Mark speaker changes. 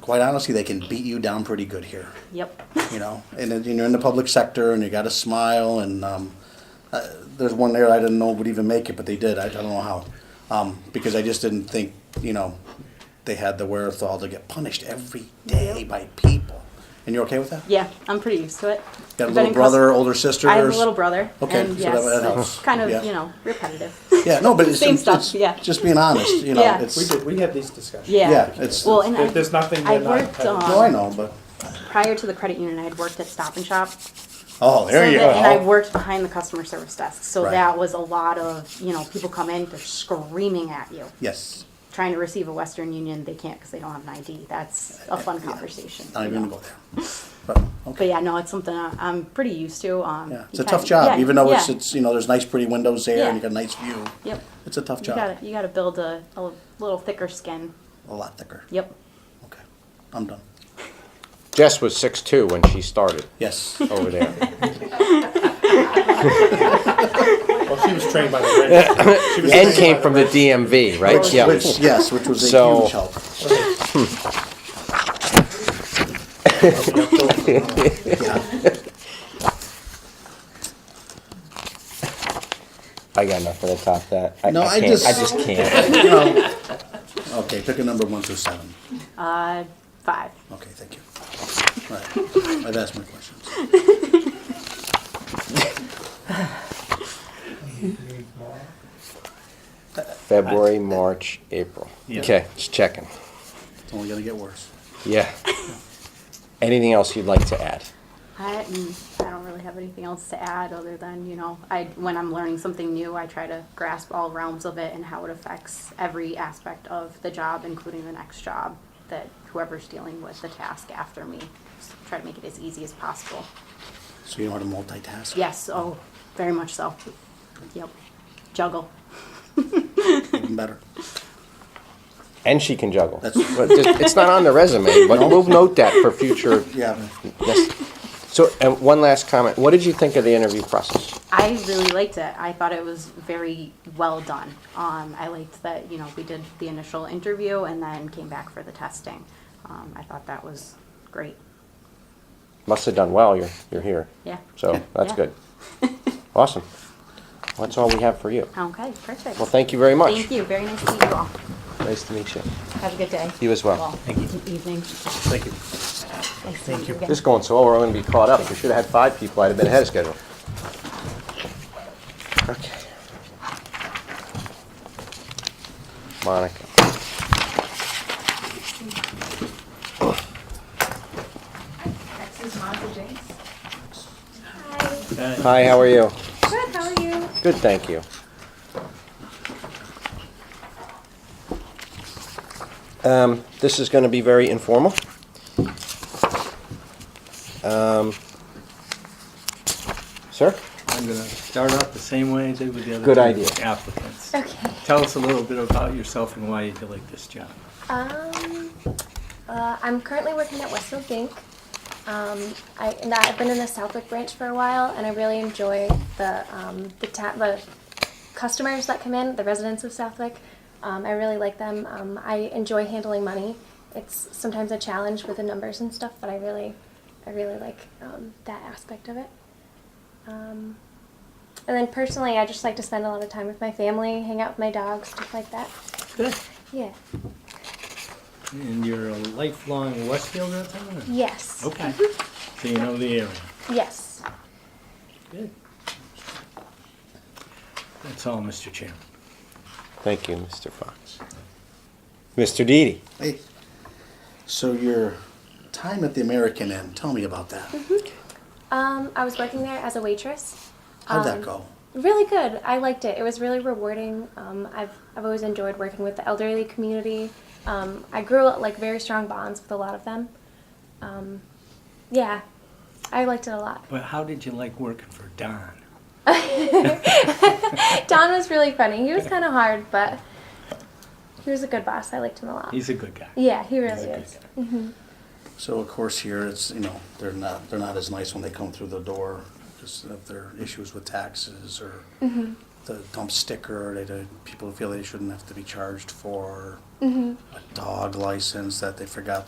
Speaker 1: quite honestly, they can beat you down pretty good here.
Speaker 2: Yep.
Speaker 1: You know, and then you're in the public sector, and you got to smile. And um, uh, there's one there I didn't know would even make it, but they did. I, I don't know how, um, because I just didn't think you know they had the wherewithal to get punished every day by people. And you're okay with that?
Speaker 2: Yeah, I'm pretty used to it.
Speaker 1: Got a
Speaker 2: I've been
Speaker 1: little
Speaker 2: in
Speaker 1: brother,
Speaker 2: cus-
Speaker 1: older sister.
Speaker 2: I have a little brother.
Speaker 1: Okay,
Speaker 2: and
Speaker 1: so
Speaker 2: yes,
Speaker 1: that- that
Speaker 2: it's
Speaker 1: helps.
Speaker 2: Kind of,
Speaker 1: Yeah.
Speaker 2: you know, repetitive.
Speaker 1: Yeah, no, but it's,
Speaker 2: Same
Speaker 1: it's,
Speaker 2: stuff,
Speaker 1: it's
Speaker 2: yeah.
Speaker 1: just being honest. You know,
Speaker 2: Yeah.
Speaker 1: it's
Speaker 3: We did, we had these discussions.
Speaker 2: Yeah.
Speaker 1: yeah, it's
Speaker 2: Well, and
Speaker 3: There-
Speaker 2: I-
Speaker 3: There's nothing
Speaker 2: I
Speaker 3: we're not.
Speaker 2: worked,
Speaker 3: having.
Speaker 2: um,
Speaker 1: no, I know, but
Speaker 2: Prior to the credit union, I had worked at Stop and Shop.
Speaker 1: oh, there
Speaker 2: so
Speaker 1: you
Speaker 2: that-
Speaker 1: go.
Speaker 2: And I worked behind the customer service desk, so
Speaker 1: Right.
Speaker 2: that was a lot of you know people come in, they're screaming at you,
Speaker 1: yes,
Speaker 2: trying to receive a Western Union, they can't because they don't have an ID. That's a fun conversation.
Speaker 1: not
Speaker 2: you
Speaker 1: even
Speaker 2: know.
Speaker 1: gonna go there. But okay.
Speaker 2: But yeah, no, it's something I- I'm pretty used to. Um,
Speaker 1: Yeah, it's a
Speaker 2: you
Speaker 1: tough
Speaker 2: kinda-
Speaker 1: job,
Speaker 2: yeah,
Speaker 1: even though it's,
Speaker 2: yeah.
Speaker 1: it's, you know, there's nice pretty windows there and you
Speaker 2: Yeah.
Speaker 1: got a nice view.
Speaker 2: Yep.
Speaker 1: It's a tough
Speaker 2: You
Speaker 1: job,
Speaker 2: gotta, you gotta build a, a little thicker skin.
Speaker 1: a lot thicker.
Speaker 2: Yep.
Speaker 1: Okay, I'm done.
Speaker 4: Jess was six two when she started
Speaker 1: Yes,
Speaker 4: over there.
Speaker 3: Well, she was trained by the Reds. She was
Speaker 4: and
Speaker 3: trained
Speaker 4: came
Speaker 3: by
Speaker 4: from the DMV, right?
Speaker 1: which,
Speaker 4: Yeah.
Speaker 1: which, yes, which was a
Speaker 4: So-
Speaker 1: huge help.
Speaker 4: I got nothing to top that. I,
Speaker 1: No,
Speaker 4: I
Speaker 1: I
Speaker 4: can't.
Speaker 1: just-
Speaker 4: I just can't.
Speaker 1: You know, Okay, pick a number one through seven.
Speaker 2: Uh, five.
Speaker 1: Okay, thank you. All right, I've asked my questions.
Speaker 4: February, March, April.
Speaker 1: Yeah.
Speaker 4: Okay, just checking.
Speaker 1: It's only gonna get worse.
Speaker 4: Yeah. Anything else you'd like to add?
Speaker 2: I, mm, I don't really have anything else to add other than, you know, I, when I'm learning something new, I try to grasp all realms of it and how it affects every aspect of the job, including the next job that whoever's dealing with the task after me. Just Try to make it as easy as possible.
Speaker 1: So you know how to multitask?
Speaker 2: Yes, oh, very much so. Yep. Juggle.
Speaker 1: Even better.
Speaker 4: And she can juggle.
Speaker 1: That's-
Speaker 4: But just- it's not on the resume, but we'll note that for future.
Speaker 1: Yeah,
Speaker 4: Yes. So, and one last comment. What did you think of the interview process?
Speaker 2: I really liked it. I thought it was very well done. Um, I liked that you know we did the initial interview and then came back for the testing. Um, I thought that was great.
Speaker 4: Must have done well. You're you're here.
Speaker 2: Yeah.
Speaker 4: So that's
Speaker 2: Yeah.
Speaker 4: good. Awesome. That's all we have for you.
Speaker 2: Okay, perfect.
Speaker 4: Well, thank you very much.
Speaker 2: Thank you. Very nice to meet you all.
Speaker 4: Nice to meet you.
Speaker 2: Have a good day.
Speaker 4: You as well.
Speaker 2: Thank you. Evening.
Speaker 1: thank you.
Speaker 2: Nice Thank you. again.
Speaker 4: Just going slow, or I'm going to be caught up. We should have had five people. I'd have been ahead of schedule. Okay. Monica.
Speaker 5: This is Monica Jinks.
Speaker 4: Hi, how are you?
Speaker 5: Good, how are you?
Speaker 4: Good, thank you. Um, this is gonna be very informal. Um, Sir?
Speaker 6: I'm gonna start out the same way I did with the other
Speaker 4: Good
Speaker 6: two
Speaker 4: idea.
Speaker 6: applicants.
Speaker 5: Okay.
Speaker 6: Tell us a little bit about yourself and why you like this job.
Speaker 5: Um, uh, I'm currently working at Westfield Bank. Um, I, and I've been in the Southwick branch for a while, and I really enjoy the um, the, ta- the customers that come in, the residents of Southwick. Um, I really like them. Um, I enjoy handling money. It's sometimes a challenge with the numbers and stuff, but I really, I really like um, that aspect of it. Um, and then personally, I just like to spend a lot of time with my family, hang out with my dogs, stuff like that.
Speaker 6: Good.
Speaker 5: Yeah.
Speaker 6: And you're a lifelong Westfield resident? or-
Speaker 5: Yes. Mm-hmm.
Speaker 6: Okay. So you know the area.
Speaker 5: Yes.
Speaker 6: Good. That's all, Mr. Chairman.
Speaker 4: Thank you, Mr. Fox. Mr. Deedy?
Speaker 1: Hey, so your time at the American Inn, tell me about that.
Speaker 2: Mm-hmm.
Speaker 5: Um, I was working there as a waitress.
Speaker 1: How'd that
Speaker 5: Um,
Speaker 1: go?
Speaker 5: Really good. I liked it. It was really rewarding. Um, I've I've always enjoyed working with the elderly community. Um, I grew like very strong bonds with a lot of them. Um, yeah, I liked it a lot.
Speaker 6: But how did you like working for Don? Oh.
Speaker 5: Don was really funny. He was kind of hard, but he was a good boss. I liked him a lot.
Speaker 6: He's a good guy.
Speaker 5: yeah, he
Speaker 6: He's
Speaker 5: really
Speaker 6: a good
Speaker 5: is.
Speaker 6: guy.
Speaker 1: So of course here, it's, you know, they're not, they're not as nice when they come through the door, just if there are issues with taxes or the dump sticker, they, the people feel they shouldn't have to be charged for a dog license that they forgot